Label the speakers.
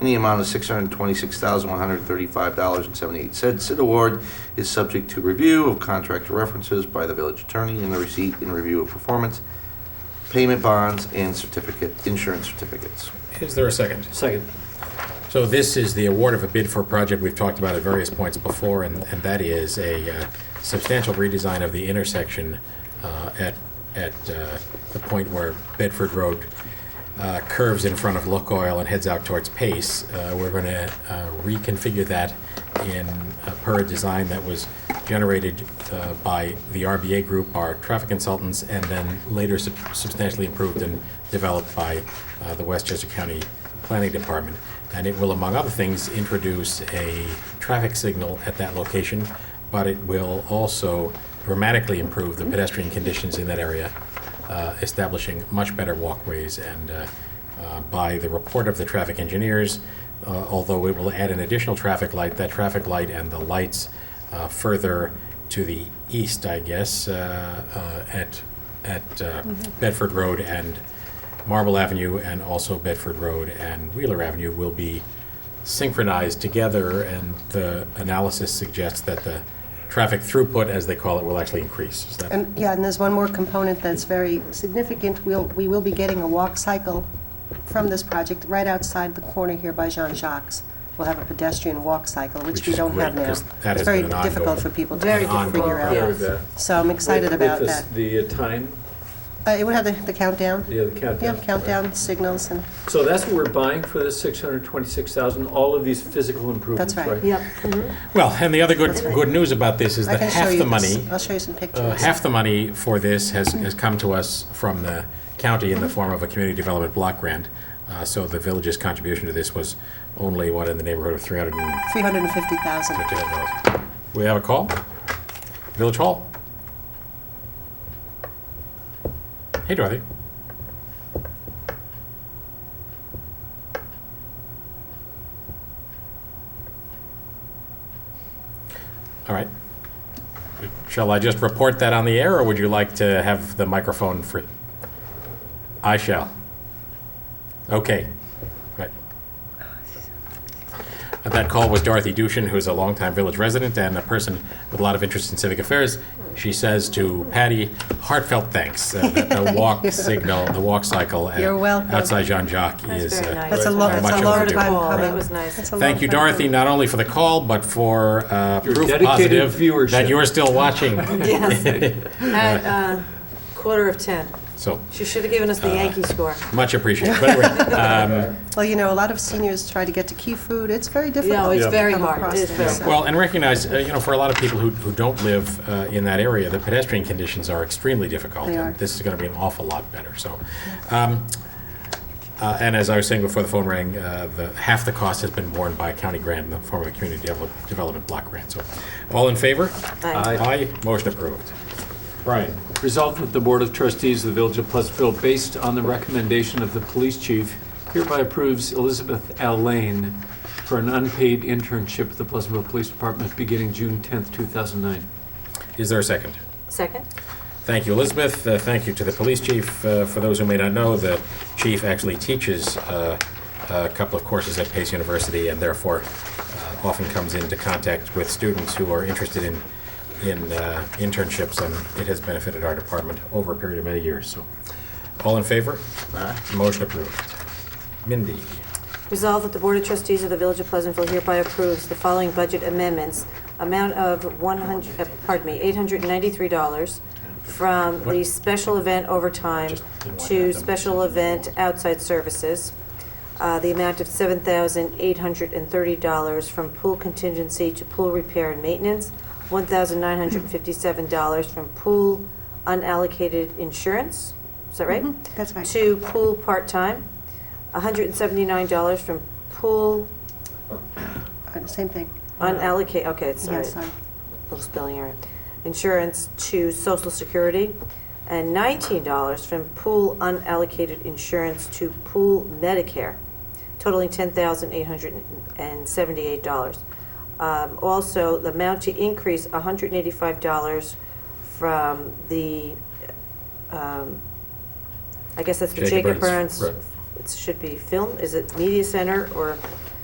Speaker 1: in the amount of $626,135.78. Said award is subject to review of contract references by the village attorney and the receipt and review of performance, payment bonds, and certificate, insurance certificates.
Speaker 2: Is there a second?
Speaker 3: Second.
Speaker 2: So this is the award of a bid for a project we've talked about at various points before, and, and that is a uh, substantial redesign of the intersection uh, at, at uh, the point where Bedford Road uh, curves in front of Look Oil and heads out towards Pace. Uh, We're going to reconfigure that in, uh, per a design that was generated uh, by the RBA Group, our traffic consultants, and then later sub- substantially improved and developed by uh, the Westchester County Planning Department. And it will, among other things, introduce a traffic signal at that location, but it will also dramatically improve the pedestrian conditions in that area, uh, establishing much better walkways. And uh, uh, by the report of the traffic engineers, uh, although it will add an additional traffic light, that traffic light and the lights uh, further to the east, I guess, uh, uh, at, at uh, Bedford Road and Marble Avenue and also Bedford Road and Wheeler Avenue will be synchronized together, and the analysis suggests that the traffic throughput, as they call it, will actually increase. Is that-
Speaker 4: And, yeah, and there's one more component that's very significant. We'll, we will be getting a walk cycle from this project right outside the corner here by Jean Jacques. We'll have a pedestrian walk cycle, which
Speaker 2: Which
Speaker 4: we
Speaker 2: is
Speaker 4: don't
Speaker 2: great,
Speaker 4: have now.
Speaker 2: 'cause that
Speaker 4: It's
Speaker 2: has
Speaker 4: very
Speaker 2: been an
Speaker 4: difficult
Speaker 2: ongoing-
Speaker 4: for people to
Speaker 2: Very
Speaker 4: figure
Speaker 2: difficult.
Speaker 4: out.
Speaker 5: Yeah.
Speaker 4: So I'm excited
Speaker 5: With- with
Speaker 4: about
Speaker 5: the
Speaker 4: that.
Speaker 5: s- The uh, time,
Speaker 4: Uh, It would have the the countdown.
Speaker 5: yeah, the uh,
Speaker 4: Yeah,
Speaker 5: countdown.
Speaker 4: countdown signals and,
Speaker 5: So that's what we're buying for the six hundred twenty-six thousand, all of these physical improvements,
Speaker 4: right.
Speaker 5: right?
Speaker 6: Yep.
Speaker 2: Well, and the other good, good news about this is
Speaker 4: I
Speaker 2: that
Speaker 4: can show
Speaker 2: half the
Speaker 4: you
Speaker 2: money.
Speaker 4: this. I'll show you some
Speaker 2: Uh,
Speaker 4: pictures.
Speaker 2: Half the money for this has, has come to us from the county in the form of a community development block grant. Uh, So the village's contribution to this was only, what, in the neighborhood of 300 and
Speaker 4: 350,000.
Speaker 2: $1,500. We have a call? Village Hall? Hey, Dorothy. All right. Shall I just report that on the air, or would you like to have the microphone free? I shall. Okay. Right. At that call was Dorothy Dushin, who's a longtime village resident and a person with a lot of interest in civic affairs. She says to Patty, heartfelt thanks uh, that the walk signal, the walk cycle at-
Speaker 4: You're welcome.
Speaker 2: outside Jean Jacques
Speaker 6: That's
Speaker 2: is
Speaker 6: very
Speaker 2: uh,
Speaker 6: nice.
Speaker 4: That's a long,
Speaker 2: Much
Speaker 4: that's a long
Speaker 2: overdue.
Speaker 4: time
Speaker 6: Cool,
Speaker 4: coming.
Speaker 6: that was nice.
Speaker 4: That's a long
Speaker 2: Thank you,
Speaker 4: time
Speaker 2: Dorothy,
Speaker 4: coming.
Speaker 2: not only for the call, but for uh,
Speaker 5: Your
Speaker 2: proof
Speaker 5: dedicated
Speaker 2: positive that
Speaker 5: viewership.
Speaker 2: you're still watching.
Speaker 6: Yes. At uh, quarter of 10.
Speaker 2: So,
Speaker 6: She should have given us the
Speaker 2: Uh,
Speaker 6: Yankee score.
Speaker 2: much appreciated. But anyway, um,
Speaker 4: Well, you know, a lot of seniors try to get to Key Food. It's very difficult.
Speaker 6: No, it's
Speaker 4: to
Speaker 6: very
Speaker 4: come
Speaker 6: hard.
Speaker 4: across
Speaker 6: It is
Speaker 4: there,
Speaker 6: very
Speaker 4: so-
Speaker 6: hard.
Speaker 2: well, and recognize, uh, you know, for a lot of people who, who don't live uh, in that area, the pedestrian conditions are extremely difficult.
Speaker 4: They
Speaker 2: and
Speaker 4: are.
Speaker 2: This is going to be an awful lot better, so. um, uh, And as I was saying before the phone rang, uh, the, half the cost has been borne by a county grant in the form of a community develop- development block grant. So, all in favor?
Speaker 6: Aye.
Speaker 2: Aye, motion approved. Brian?
Speaker 5: Resolved that the Board of Trustees of the Village of Pleasantville, based on the recommendation of the police chief, hereby approves Elizabeth L. Lane for an unpaid internship at the Pleasantville Police Department beginning June tenth, two thousand nine.
Speaker 2: Is there a second?
Speaker 6: Second?
Speaker 2: Thank you, Elizabeth. Uh, Thank you to the police chief. Uh, For those who may not know, the chief actually teaches uh, a couple of courses at Pace University and therefore uh, often comes into contact with students who are interested in, in uh, internships, and it has benefited our department over a period of many years. So, all in favor? Motion approved. Mindy,
Speaker 6: Resolved that the Board of Trustees of the Village of Pleasantville hereby approves the following budget amendments. Amount of 100, uh, pardon me, $893 from the special event overtime
Speaker 2: Just didn't want to add them.
Speaker 6: to special event outside services. Uh, The amount of $7,830 from pool contingency to pool repair and maintenance. $1,957 from pool unallocated insurance. Is that right?
Speaker 4: Mm-hmm, That's right.
Speaker 6: To pool part-time. $179 from pool
Speaker 4: Uh, Same thing.
Speaker 6: unallocated, okay, it's,
Speaker 4: Yeah,
Speaker 6: sorry,
Speaker 4: sorry.
Speaker 6: little spelling error. Insurance to social security, and $19 from pool unallocated insurance to pool Medicare, totaling $10,878. Um, Also, the amount to increase $185 from the, um, I guess that's the
Speaker 2: Jacob
Speaker 6: Jacob
Speaker 2: Burns,
Speaker 6: Burns.
Speaker 2: right.
Speaker 6: It should be film, is it media center or